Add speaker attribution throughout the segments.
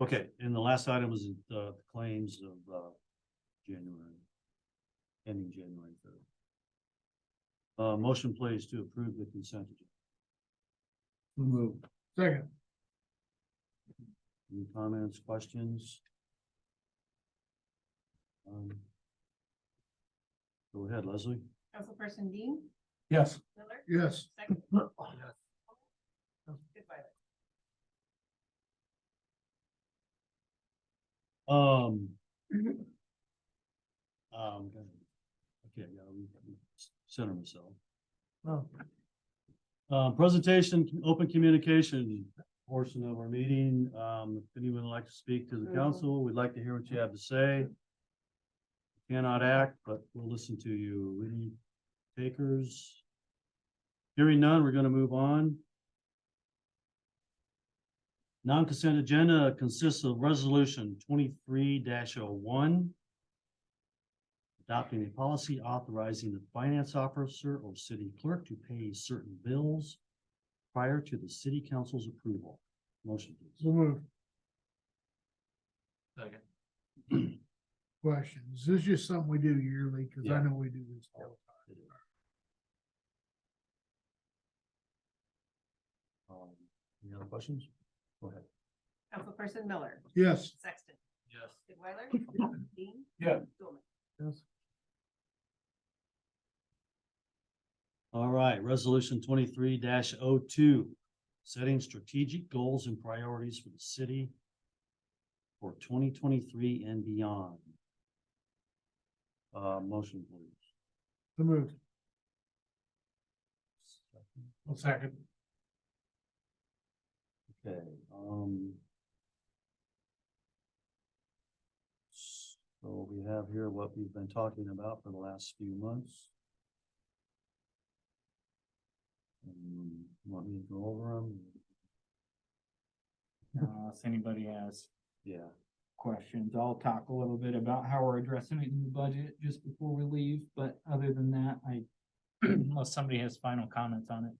Speaker 1: Okay, and the last item was uh, the claims of, uh, January. Ending January third. Uh, motion please to approve the consent agenda.
Speaker 2: Move. Second.
Speaker 1: Any comments, questions? Um, Go ahead, Leslie.
Speaker 3: Councilperson Dean
Speaker 2: Yes.
Speaker 3: Miller,
Speaker 2: Yes.
Speaker 3: second,
Speaker 4: Oh,
Speaker 3: goodbye.
Speaker 1: Um. Um, okay, I gotta re- re- center myself.
Speaker 2: Oh.
Speaker 1: Uh, presentation, open communication portion of our meeting. Um, if anyone would like to speak to the council, we'd like to hear what you have to say. Cannot act, but we'll listen to you. Any takers? Hearing none, we're gonna move on. Non-consent agenda consists of resolution twenty-three oh one Adopting a policy authorizing the finance officer or city clerk to pay certain bills prior to the city council's approval. Motion please.
Speaker 2: So move.
Speaker 4: Second.
Speaker 2: Questions. This is just something we do yearly, cause
Speaker 1: Yeah.
Speaker 2: I know we do this. all the time.
Speaker 1: Um, Any other questions? Go ahead.
Speaker 3: Councilperson Miller,
Speaker 2: Yes.
Speaker 3: Sexton,
Speaker 4: Yes.
Speaker 3: Goodweiler, Dean.
Speaker 2: Yeah.
Speaker 3: Stulman.
Speaker 2: Yes.
Speaker 1: All right, resolution twenty-three 2 setting strategic goals and priorities for the city for twenty twenty-three and beyond. Uh, motion please.
Speaker 2: So moved. One second.
Speaker 1: Okay, um. So we have here what we've been talking about for the last few months. Um, Want me to go over them?
Speaker 5: Uh, if anybody has
Speaker 1: Yeah,
Speaker 5: questions, I'll talk a little bit about how we're addressing it in the budget just before we leave, but other than that, I. Unless somebody has final comments on it.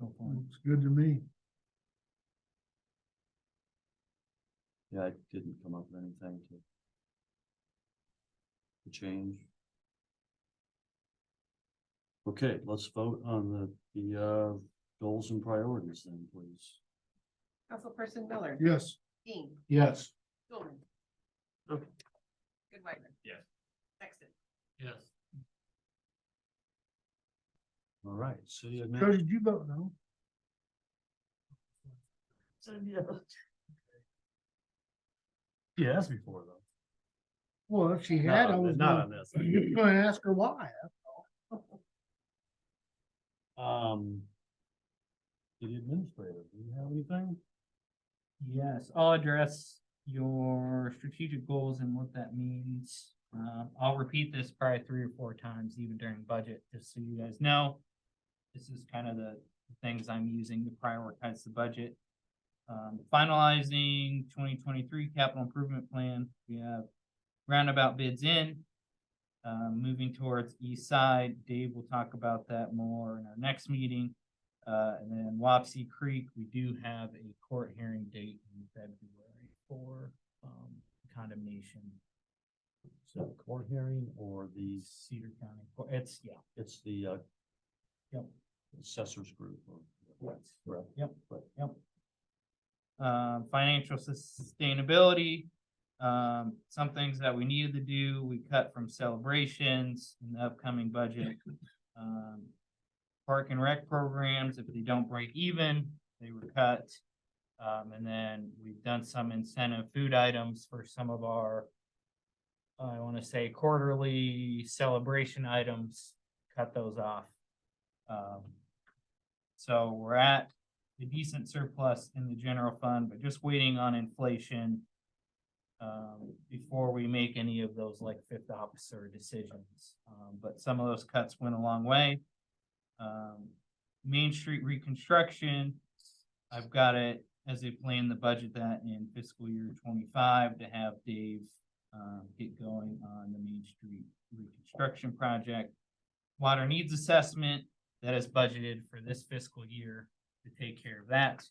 Speaker 5: Go for it.
Speaker 2: Looks good to me.
Speaker 1: yeah, I didn't come up with anything to to change. Okay, let's vote on the, the, uh, goals and priorities then, please.
Speaker 3: Councilperson Miller,
Speaker 2: Yes.
Speaker 3: Dean
Speaker 2: Yes.
Speaker 3: Stulman.
Speaker 4: Okay.
Speaker 3: Goodweiler.
Speaker 4: Yes.
Speaker 3: Sexton,
Speaker 4: Yes.
Speaker 1: All right, city
Speaker 2: Joe,
Speaker 1: admin,
Speaker 2: did you vote no?
Speaker 4: Yeah, that's before though.
Speaker 2: Well, if she had, I was
Speaker 4: Not
Speaker 2: gonna
Speaker 4: on this.
Speaker 2: gonna ask her why.
Speaker 1: um, city administrator, do you have anything?
Speaker 5: Yes, I'll address your strategic goals and what that means. Um, I'll repeat this probably three or four times even during budget, just so you guys know. This is kind of the things I'm using to prioritize the budget. Um, finalizing twenty twenty-three capital improvement plan, we have roundabout bids in. Uh, moving towards east side, Dave will talk about that more in our next meeting. Uh, and then Wapsie Creek, we do have a court hearing date in February for, um, condemnation,
Speaker 1: So court hearing or
Speaker 5: the
Speaker 1: the,
Speaker 5: Cedar County, Court. it's, yeah.
Speaker 1: it's the, uh,
Speaker 5: Yep.
Speaker 1: assessors group or. Correct.
Speaker 5: Yep,
Speaker 1: Right.
Speaker 5: yep. Um, financial sustainability, um, some things that we needed to do, we cut from celebrations in the upcoming budget. Um, Park and rec programs, if they don't break even, they were cut. Um, and then we've done some incentive food items for some of our, I wanna say quarterly celebration items, cut those off. Um, so we're at a decent surplus in the general fund, but just waiting on inflation. Um, before we make any of those like fifth officer decisions, um, but some of those cuts went a long way. Um, Main Street reconstruction, I've got it as a plan to budget that in fiscal year twenty-five to have Dave. Um, get going on the Main Street reconstruction project. Water needs assessment that is budgeted for this fiscal year to take care of that.